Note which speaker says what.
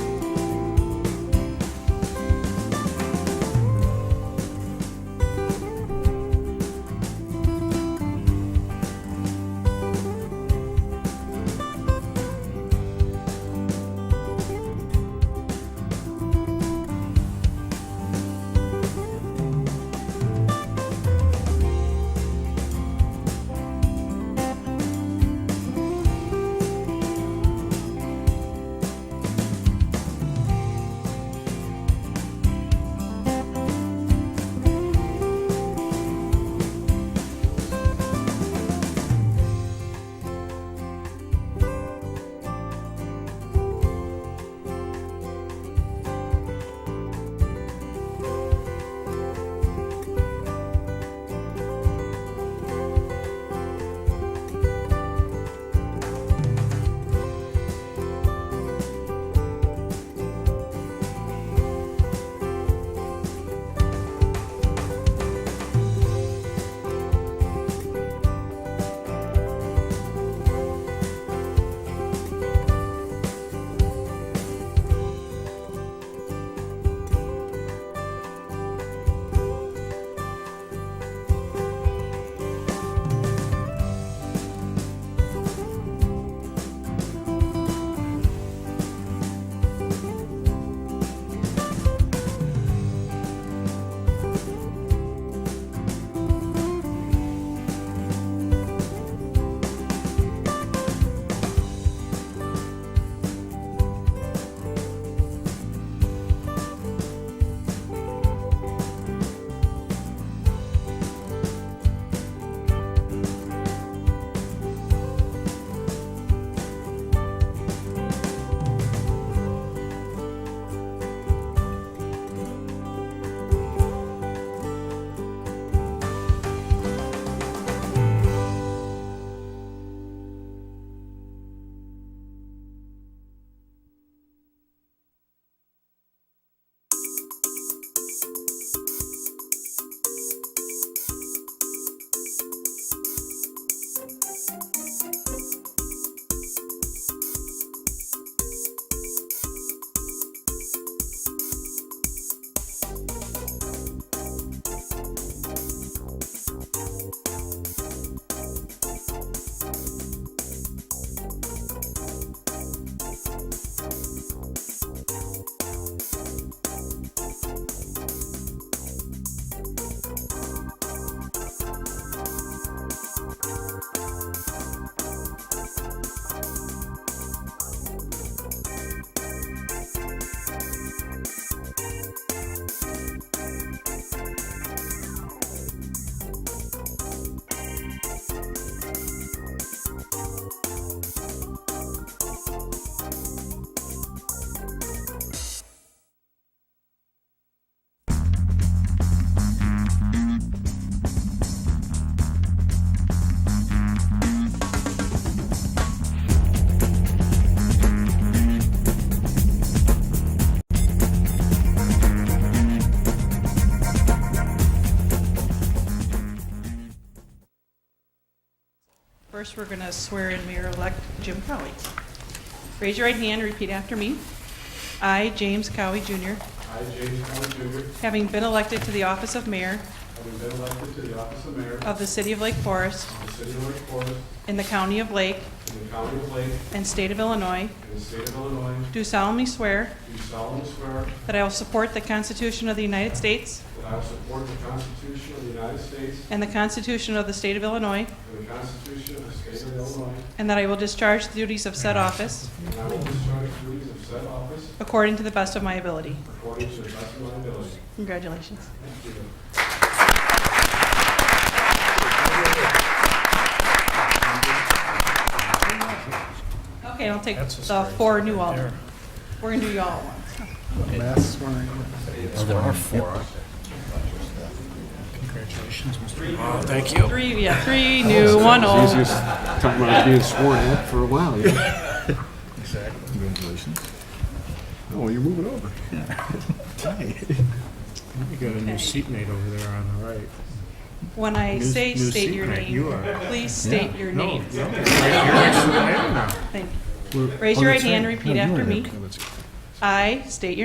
Speaker 1: First, we're going to swear in Mayor-elect Jim Cowie. Raise your right hand and repeat after me. I, James Cowie Jr.,
Speaker 2: I, James Conley Jr.,
Speaker 1: having been elected to the office of mayor
Speaker 2: having been elected to the office of mayor of
Speaker 1: of the city of Lake Forest
Speaker 2: the city of Lake Forest
Speaker 1: in the county of Lake
Speaker 2: in the county of Lake
Speaker 1: and state of Illinois,
Speaker 2: in the state of Illinois,
Speaker 1: do solemnly swear
Speaker 2: do solemnly swear
Speaker 1: that I will support the Constitution of the United States
Speaker 2: that I will support the Constitution of the United States
Speaker 1: and the Constitution of the state of Illinois,
Speaker 2: and the Constitution of the state of Illinois,
Speaker 1: and that I will discharge the duties of said office
Speaker 2: and I will discharge the duties of said office
Speaker 1: according to the best of my ability.
Speaker 2: according to the best of my ability.
Speaker 1: Congratulations.
Speaker 2: Thank you.
Speaker 1: Okay, I'll take
Speaker 3: That's a
Speaker 1: the
Speaker 3: story
Speaker 1: four
Speaker 3: right
Speaker 1: new aldermen.
Speaker 3: there.
Speaker 1: We're going to do you all at once.
Speaker 4: Mass swearing.
Speaker 3: There are four. Congratulations, Mr. Mayor. Thank you.
Speaker 1: Three, yeah, three new, one old.
Speaker 4: Easiest time I've been sworn at for a while. you know.
Speaker 3: Exactly.
Speaker 4: Congratulations. Oh, you're moving over.
Speaker 3: You got a new
Speaker 1: Okay.
Speaker 3: seatmate over there on the right.
Speaker 1: When I
Speaker 3: Ms.
Speaker 1: say
Speaker 3: Ms.
Speaker 1: state your
Speaker 3: Seagrave,
Speaker 1: name,
Speaker 3: you are.
Speaker 1: please state your
Speaker 3: No,
Speaker 1: name.
Speaker 3: no, you're right here. I am now.
Speaker 1: Thank you.
Speaker 4: We're-
Speaker 1: Raise
Speaker 4: oh,
Speaker 1: your right
Speaker 4: that's
Speaker 1: hand and
Speaker 4: No,
Speaker 1: repeat
Speaker 4: you
Speaker 1: after
Speaker 4: are.
Speaker 1: me.
Speaker 4: Okay, that's-
Speaker 1: I state your